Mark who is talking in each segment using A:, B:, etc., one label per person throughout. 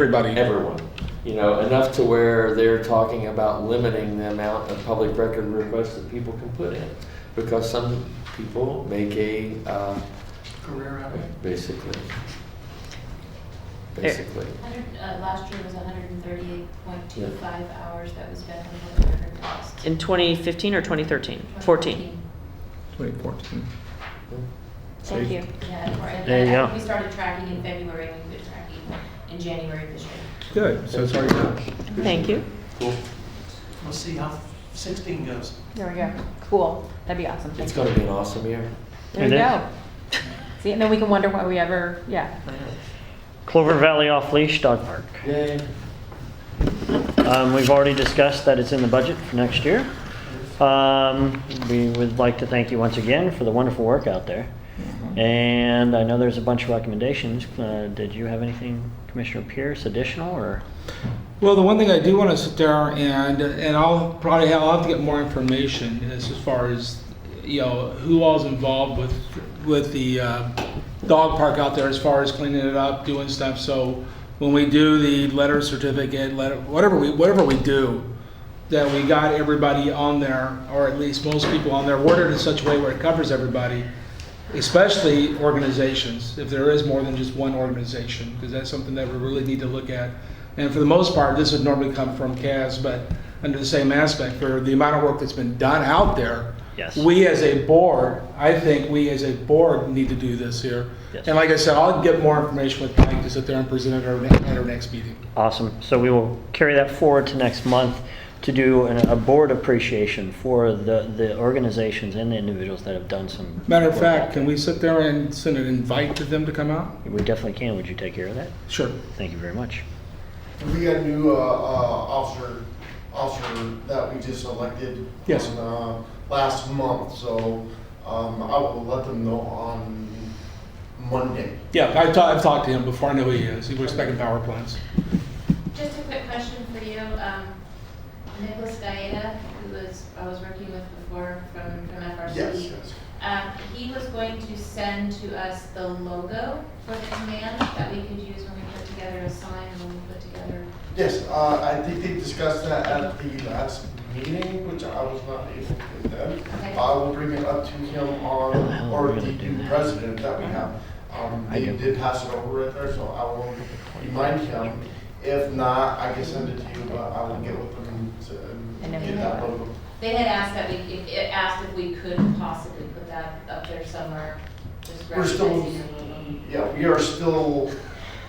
A: Everybody.
B: everyone. You know, enough to where they're talking about limiting the amount of public record requests that people can put in. Because some people make a, uh,
C: career out of it.
B: basically.
D: Eh.
B: Basically.
E: Hundred, uh, last year was hundred and thirty-eight point two five hours that was spent on the record request.
D: In 2015 or 2013? 14.
A: 2014.
D: Thank you.
E: Yeah, or- and
D: There you
E: I-
D: go.
E: we started tracking in February, and we've been tracking in January this year.
A: Good, so it's already done.
D: Thank you.
B: Cool.
C: We'll see how 16 goes.
F: There we go. Cool. That'd be awesome.
B: It's gonna be an awesome year.
F: There we
G: It is.
F: go. See, and then we can wonder why we ever, yeah.
G: Clover Valley Off Leash Dog Park.
B: Yay.
G: Um, We've already discussed that it's in the budget for next year. Um, We would like to thank you once again for the wonderful work out there. And I know there's a bunch of recommendations. Uh, Did you have anything, Commissioner Pierce, additional or?
A: Well, the one thing I do want to sit down and, and I'll probably have, I'll have to get more information as, as far as, you know, who all's involved with, with the, uh, dog park out there as far as cleaning it up, doing stuff, so when we do the letter certificate, letter, whatever we, whatever we do, that we got everybody on there, or at least most people on there, worded in such a way where it covers everybody, especially organizations, if there is more than just one organization, because that's something that we really need to look at. And for the most part, this would normally come from CAS, but under the same aspect, for the amount of work that's been done out there,
G: Yes.
A: we as a board, I think we as a board need to do this here.
G: Yes.
A: And like I said, I'll get more information with Mike to sit there and present it at our, ne- at our next meeting.
G: Awesome. So we will carry that forward to next month to do an- a board appreciation for the, the organizations and the individuals that have done some.
A: Matter of fact, can we sit there and send an invite to them to come out?
G: We definitely can. Would you take care of that?
A: Sure.
G: Thank you very much.
H: And We got a new uh, uh, officer, officer that we just elected.
A: Yes.
H: on, uh, Last month, so um, I will let them know on Monday.
A: Yeah, I've talked, I've talked to him before. I know who he is. He works back in power plants.
E: Just a quick question for you, um, Nicholas Gaeta, who was, I was working with before from, from FRC.
H: Yes, yes.
E: Um, he was going to send to us the logo for the command that we could use when we put together a sign, when we put together
H: Yes, uh, I think they discussed that at the last meeting, which I was not able to attend.
E: Okay.
H: I will bring it up to him
G: How the hell
H: on,
G: are we
H: or the
G: gonna do
H: new
G: that?
H: president that we have. Um,
G: I
H: They
G: do.
H: did pass it over right there, so I will remind him. If not, I can send it to you, but I will get with him to
F: And then we
H: get that logo.
E: They had asked that we, if- it asked if we could possibly put that up there somewhere, just
H: We're still,
E: referencing the logo.
H: yeah, we are still,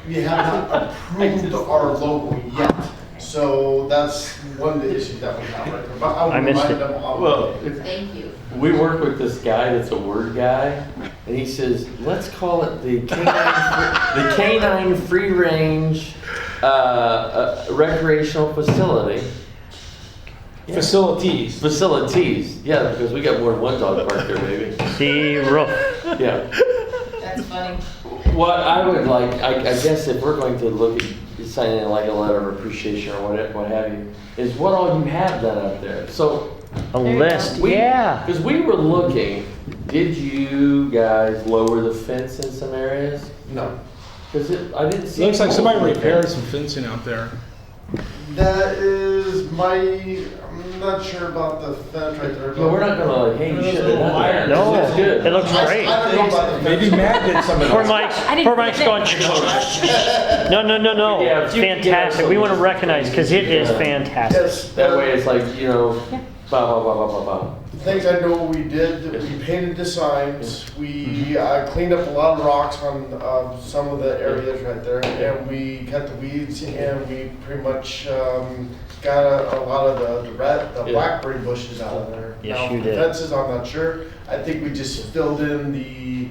H: we have not approved our logo yet. So that's one of the issues that we have right there, but I
G: I
H: will
G: missed
H: remind
G: it.
H: them. of-
B: Well,
E: Thank you.
B: we work with this guy that's a word guy, and he says, let's call it the canine, the canine free range uh, uh, recreational facility. Yeah.
A: Facilities.
B: Facilities, yeah, because we got more than one dog park there, baby.
G: Sea roof.
B: Yeah.
E: That's funny.
B: What I would like, I, I guess if we're going to look at signing like a letter of appreciation or what, what have you, is what all you have done up there. So
G: A
F: There you
G: list,
B: we,
G: yeah.
B: Because we were looking, did you guys lower the fence in some areas?
H: No,
B: Because it, I didn't see.
A: Looks like somebody
B: holes in there.
A: repaired some fencing out there.
H: that is my, I'm not sure about the fence right
B: No,
H: there. but-
B: we're not gonna like hang shit in there.
G: No,
B: That's good.
G: it looks
H: I-
G: great.
H: I don't know about the fence.
A: Maybe Matt did some of
G: Poor
A: those.
G: Mike's,
F: didn't
G: poor Mike's
F: get
G: going. No, no, no, no.
B: Yeah,
G: It's
B: you can get
G: fantastic. We want to
B: some-
G: recognize because it is
B: Yeah.
G: fantastic.
H: Yes.
B: That way it's like, you know,
F: Yeah.
B: blah, blah, blah, blah, blah, blah.
H: Things I know we did, we painted the signs, we
G: Mm-hmm.
H: uh, cleaned up a lot of rocks on uh, some of the areas right there, and we cut the weeds, and we pretty much um, got a, a lot of the, the rat, the
B: Yeah.
H: blackberry bushes out of there.
G: Yes,
H: Now,
G: you
H: the
G: did.
H: Fences, I'm not sure, I think we just filled in the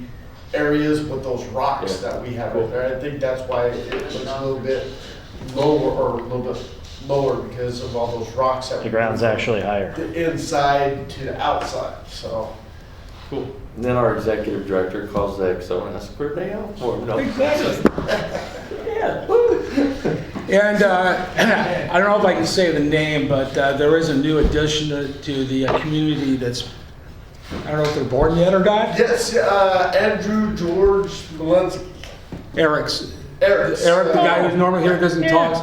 H: areas with those rocks
B: Yeah.
H: that we have
B: Cool.
H: right there, I think that's why it looks a little bit lower, or a little bit lower because of all those rocks that.
G: The
H: we-
G: ground's actually higher.
H: the inside to the outside. So
B: And then our executive director calls the XO and asks for a day off for him. No.
A: Exactly.
B: Yeah.
A: And uh, I don't know if I can say the name, but uh, there is a new addition to- to the uh, community that's, I don't know if they're born yet or not.
H: yes, uh, Andrew George Malinsky.
A: Eric's,
H: Eric's. uh,
A: Eric, the guy who's normally here, doesn't talk,